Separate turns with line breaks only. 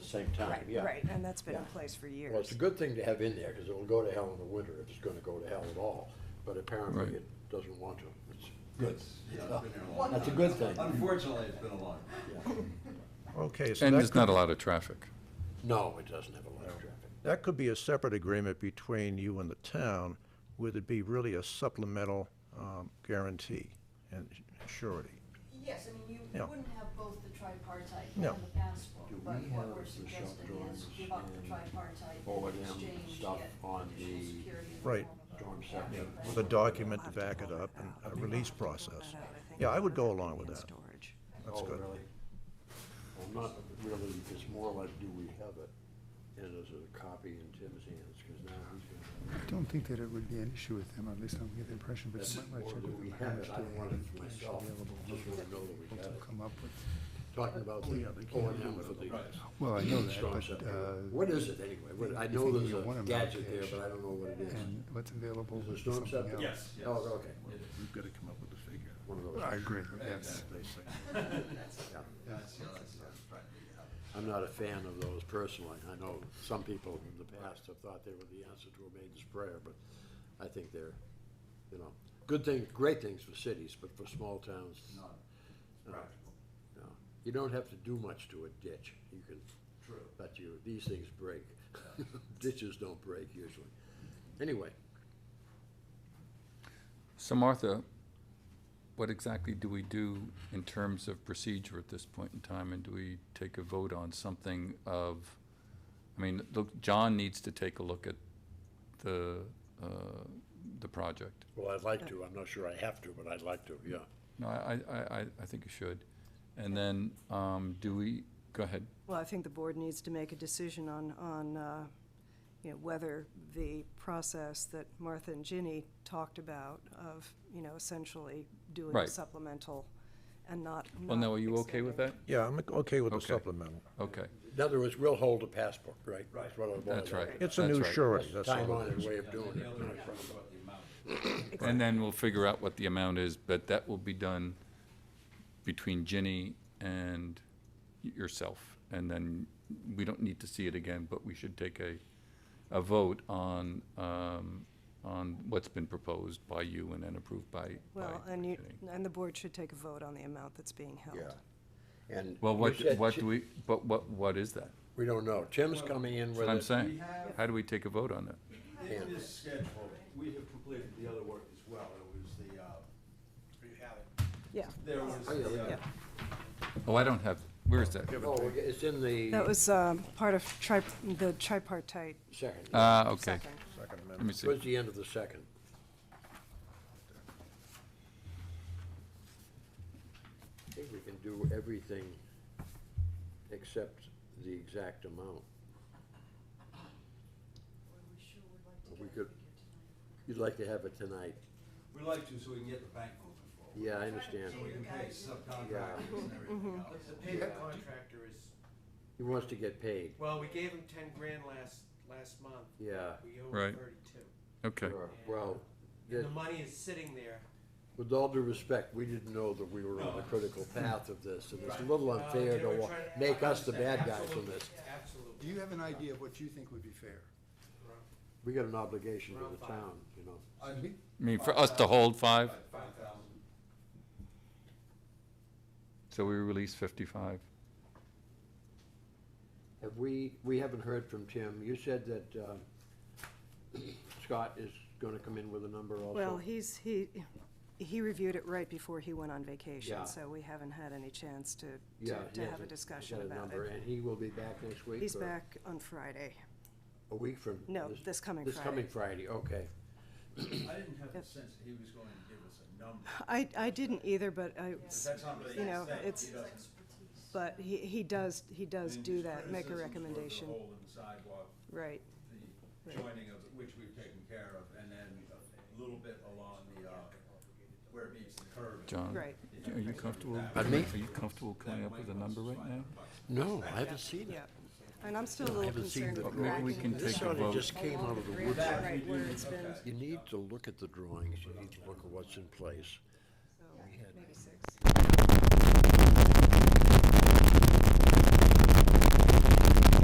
same time,
Right,
yeah.
Right, and that's been in
Yeah.
place for years.
Well, it's a good thing to have in there, because it'll go to hell in the winter if it's gonna go to hell at all, but apparently
Right.
it doesn't want to. It's good.
It's, yeah, it's been here a long time.
That's a good thing.
Unfortunately, it's been a long.
Yeah.
Okay, so
And
that
there's not a
could,
lot of traffic.
No, it doesn't have a lot of traffic.
that could be a separate agreement between you and the town, would it be really a supplemental um, guarantee and surety?
Yes, I mean, you
Yeah.
wouldn't have both the tripartite and
No.
the passport,
Do
but
we have
what we're
the shop
suggesting is
drawings
give up the
and
tripartite
O
and
and M
exchange,
stuff
get
on
additional
the
security in the
Right.
form of a
Storm
passport.
scepter.
With a document to back it up and a release process. Yeah, I would go along with that.
Storage.
That's
Oh,
good.
really? Well, not really, it's more like, do we have it? And is it a copy in Tim's hands, because now he's gonna.
I don't think that it would be an issue with them, at least I don't get the impression, but
That's
you
it.
might want
Or
to check
do
with
we
them
have it?
how much
I
they
wanted it
have cash
myself. Just
available
wanna know that we
to
got it.
come up with.
Talking about the O and M for the
Well, I know that,
storm
but,
scepter.
uh,
What is it anyway? What, I
you
know
think
there's
you want
a
'em
gadget
out
there,
there.
but I don't know what it is.
and what's available
Is it a
would be
storm
something
scepter?
else.
Yes, yes.
Oh, okay.
We've got to come up with a figure.
One of
I
those.
agree, yes.
Yeah.
That's, yeah, that's, that's right.
I'm not a fan of those personally. I know some people in the past have thought they were the answer to a maiden's prayer, but I think they're, you know, good things, great things for cities, but for small towns, no.
Not practical,
You don't have to do much to a ditch. You can,
true.
but you, these things break. Ditches don't break usually. Anyway,
So Martha, what exactly do we do in terms of procedure at this point in time? And do we take a vote on something of, I mean, look, John needs to take a look at the, uh, the project.
well, I'd like to. I'm not sure I have to, but I'd like to, yeah.
No, I, I, I, I think you should. And then, um, do we, go ahead.
Well, I think the board needs to make a decision on, on, uh, you know, whether the process that Martha and Ginny talked about of, you know, essentially doing a
Right.
supplemental and not.
Well, now,
not
are you okay with
extending it.
that?
Yeah, I'm okay with the
Okay.
supplemental.
Okay,
In other words, we'll hold a passport, right? That's what it boils
that's right.
down to.
It's a
That's
new
right.
surety, that's
Time
all
on
it
it,
is.
way of doing
The
it.
other one was about the amount.
And then we'll figure out what the amount is, but that will be done between Ginny and y- yourself. And then we don't need to see it again, but we should take a, a vote on, um, on what's been proposed by you and then approved by, by
Well, and you,
Ginny.
and the board should take a vote on the amount that's being held.
Yeah. And.
Well,
you
what,
said
what
Ti-
do we, but what, what is that?
We don't know. Tim's coming in with
What I'm
it.
saying,
have-
how do we take a vote on that?
Yeah.
In this schedule, we have completed the other work as well. It was the, uh, you have it.
Yeah,
There was
Oh, yeah, we
the, uh,
yeah.
Oh, I don't have, where is that?
Oh, it's in
That
the
was, um, part of tri, the tripartite
second.
Ah, okay,
second.
let
Second
me
amendment.
see.
Towards the end of the second. I think we can do everything except the exact amount.
We sure would like to
We
get a
could-
figure tonight.
You'd like to have it tonight.
we like to, so we can get the bank moving forward.
Yeah, I understand.
So we can pay subcontractors and
Mm-hmm.
everything else.
The paper contractor is,
He wants to get paid.
well, we gave him ten grand last, last month.
Yeah.
We owe
Right.
him thirty-two.
Okay,
Sure. Well,
And
that-
the money is sitting there.
with all due respect, we didn't know that we were on the critical path of this, and it's a little
Uh,
unfair
they were
to wa-
trying
make us the bad guys on
Absolutely,
this.
Do
Absolutely.
you have an idea of what you think would be fair?
We got an obligation to the town, you know.
I'd be
I mean, for us to hold five,
five thousand.
so we release fifty-five.
Have we, we haven't heard from Tim. You said that uh, Scott is going to come in with a number also.
Well, he's, he, he reviewed it right before he went on vacation,
Yeah.
so we haven't had any chance to,
Yeah,
to,
he
to
has
have
a-
a
he's
discussion
got a
about
number,
it.
And he will be back next week?
He's
or
back on Friday.
A week from?
No, this coming
This coming Friday, okay.
I didn't have the
Yep.
sense that he was going to give us a number.
I, I didn't either, but I,
But That's not really
You know,
his thing. He
it's-
doesn't-
Expertise.
but he, he does, he does
And
do
his
that, make a
criticisms were
recommendation,
The hole in the sidewalk,
right.
the joining of, which we've taken care of, and then a little bit along the, uh, where it meets the curve.
John,
Right.
are you comfortable?
Pardon me?
Are you comfortable coming up with a number right now?
No, I haven't seen
Yeah, and I'm still a
No, I
little
haven't seen
concerned
the
with
drawing.
cracking.
Maybe we can
this
take
This
a
sort
along
of
vote.
just came out of the woods.
the Right, where it's been,
You need to look at the drawings, you need to look at what's in place.
so, maybe six.